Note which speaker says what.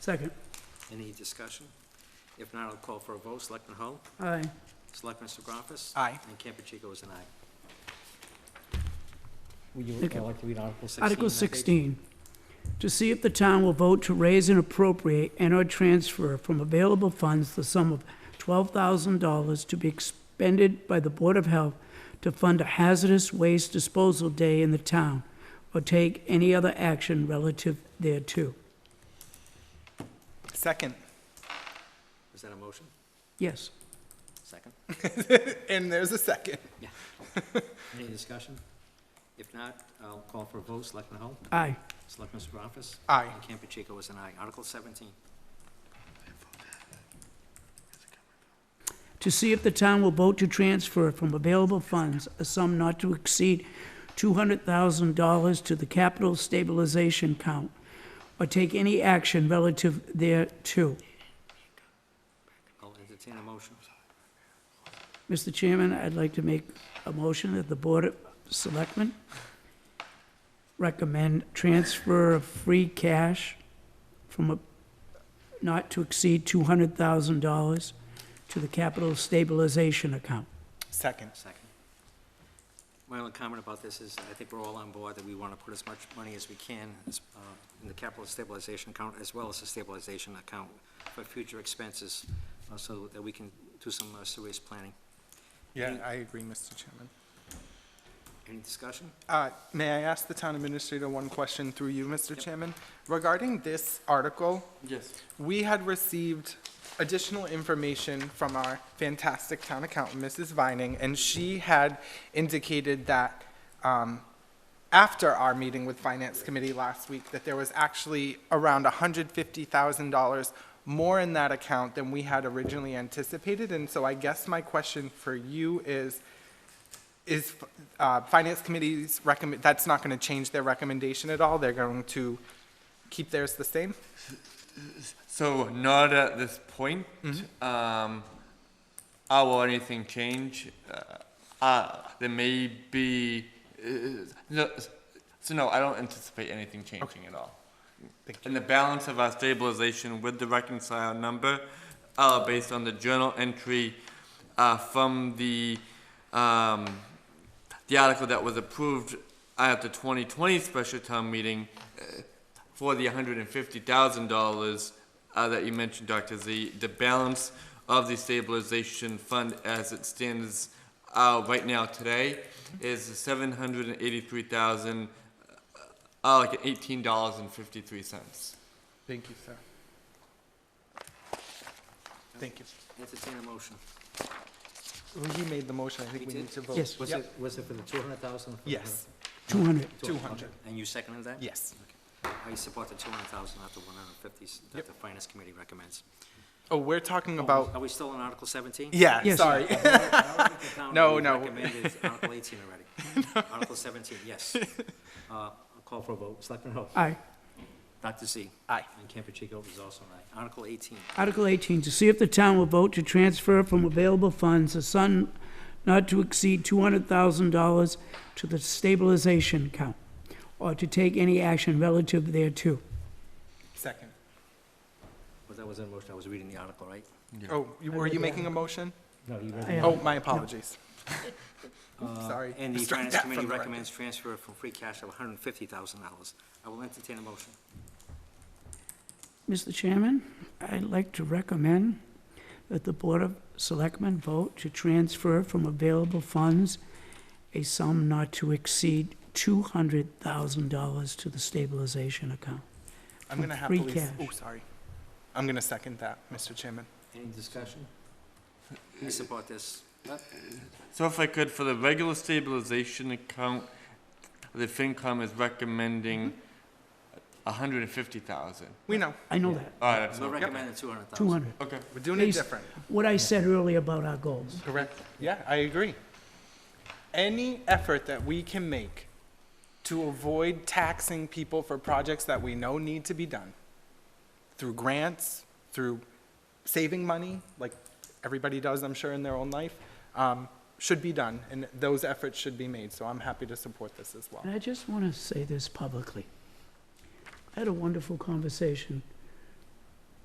Speaker 1: Second.
Speaker 2: Any discussion? If not, I'll call for a vote. Selectman Hull?
Speaker 1: Aye.
Speaker 2: Selectman Segravas?
Speaker 3: Aye.
Speaker 2: And Campuchico is an aye.
Speaker 4: Would you
Speaker 1: Thank
Speaker 4: uh,
Speaker 1: you.
Speaker 4: like to read Article 6?
Speaker 1: Article
Speaker 2: 16.
Speaker 1: 16, to see if the town will vote to raise and appropriate and/or transfer from available funds the sum of $12,000 to be expended by the Board of Health to fund a hazardous waste disposal day in the town, or take any other action relative thereto.
Speaker 3: Second.
Speaker 2: Is that a motion?
Speaker 1: Yes.
Speaker 2: Second?
Speaker 3: And there's a second.
Speaker 2: Any discussion? If not, I'll call for a vote. Selectman Hull?
Speaker 1: Aye.
Speaker 2: Selectman Segravas?
Speaker 3: Aye.
Speaker 2: And Campuchico is an aye. Article 17.
Speaker 1: to see if the town will vote to transfer from available funds a sum not to exceed $200,000 to the capital stabilization account, or take any action relative thereto.
Speaker 2: I'll entertain a motion.
Speaker 1: Mr. Chairman, I'd like to make a motion that the Board of Selectmen recommend transfer of free cash from a, not to exceed $200,000 to the capital stabilization account.
Speaker 3: Second.
Speaker 2: Second. My only comment about this is, I think we're all on board that we want to put as much money as we can as, uh, in the capital stabilization account, as well as the stabilization account for future expenses, uh, so that we can do some uh, serious planning.
Speaker 3: Yeah, I agree, Mr. Chairman.
Speaker 2: Any discussion?
Speaker 3: Uh, May I ask the town administrator one question through you, Mr. Chairman? Regarding this article? Yes. We had received additional information from our fantastic town accountant, Mrs. Vining, and she had indicated that um, after our meeting with Finance Committee last week, that there was actually around $150,000 more in that account than we had originally anticipated. And so I guess my question for you is, is uh, Finance Committee's recommend, that's not going to change their recommendation at all? They're going to keep theirs the same?
Speaker 5: So not at this point. Um, how will anything change? Uh, uh, there may be. Uh, no, so no, I don't anticipate anything changing at all. And the balance of our stabilization with the reconciled number, uh, based on the journal entry, uh, from the, um, the article that was approved at the 2020 special town meeting, uh, for the hundred and fifty thousand dollars uh, that you mentioned, Doctor Z, the balance of the stabilization fund as it stands uh, right now today is seven hundred and eighty-three thousand, uh, like eighteen dollars and fifty-three cents.
Speaker 3: Thank you, sir. Thank you.
Speaker 2: Entertain a motion.
Speaker 3: Well, He made the motion, I
Speaker 2: He
Speaker 3: think we
Speaker 2: did?
Speaker 3: need to vote.
Speaker 1: Yes.
Speaker 2: Was
Speaker 3: Yep.
Speaker 2: it, was it for the two hundred thousand?
Speaker 3: Yes,
Speaker 1: 200.
Speaker 3: 200.
Speaker 2: And you seconded that?
Speaker 3: yes.
Speaker 2: I support the two hundred thousand, not the one hundred and fifty that
Speaker 3: Yep.
Speaker 2: the finance committee recommends.
Speaker 3: Oh, we're talking about,
Speaker 2: Are we still on Article seventeen?
Speaker 3: yeah,
Speaker 1: Yes.
Speaker 3: sorry. No, no.
Speaker 2: Recommended Article eighteen already. Article seventeen, yes. Uh, I'll call for a vote. Selectman Hull?
Speaker 1: Aye.
Speaker 2: Dr. Z?
Speaker 3: Aye.
Speaker 2: And Campuchico is also an aye. Article eighteen,
Speaker 1: Article 18, to see if the town will vote to transfer from available funds a sum not to exceed $200,000 to the stabilization account, or to take any action relative thereto.
Speaker 3: Second.
Speaker 2: was that was in motion? I was reading the article, right?
Speaker 3: Oh, you- were you making a motion?
Speaker 2: No, you read
Speaker 1: I uh, am.
Speaker 3: Oh, my apologies. Sorry.
Speaker 2: Uh, And the
Speaker 3: Strike
Speaker 2: finance
Speaker 3: that from
Speaker 2: committee
Speaker 3: the record.
Speaker 2: recommends transfer from free cash of hundred and fifty thousand dollars. I will entertain a motion.
Speaker 1: Mr. Chairman, I'd like to recommend that the Board of Selectmen vote to transfer from available funds a sum not to exceed $200,000 to the stabilization account.
Speaker 3: I'm going to
Speaker 1: free
Speaker 3: happily, s-
Speaker 1: cash.
Speaker 3: oh, sorry. I'm going to second that, Mr. Chairman.
Speaker 2: Any discussion? I support this.
Speaker 5: So if I could, for the regular stabilization account, the FinCom is recommending a hundred and fifty thousand.
Speaker 3: We know,
Speaker 1: I know that,
Speaker 5: All right, that's
Speaker 2: We're
Speaker 5: all.
Speaker 2: recommending two hundred thousand.
Speaker 1: 200.
Speaker 5: Okay.
Speaker 3: we're doing it
Speaker 1: Please.
Speaker 3: different.
Speaker 1: What I said earlier about our goals.
Speaker 3: Correct. Yeah, I agree. Any effort that we can make to avoid taxing people for projects that we know need to be done, through grants, through saving money, like everybody does, I'm sure, in their own life, um, should be done, and those efforts should be made, so I'm happy to support this as well.
Speaker 1: And I just want to say this publicly. I had a wonderful conversation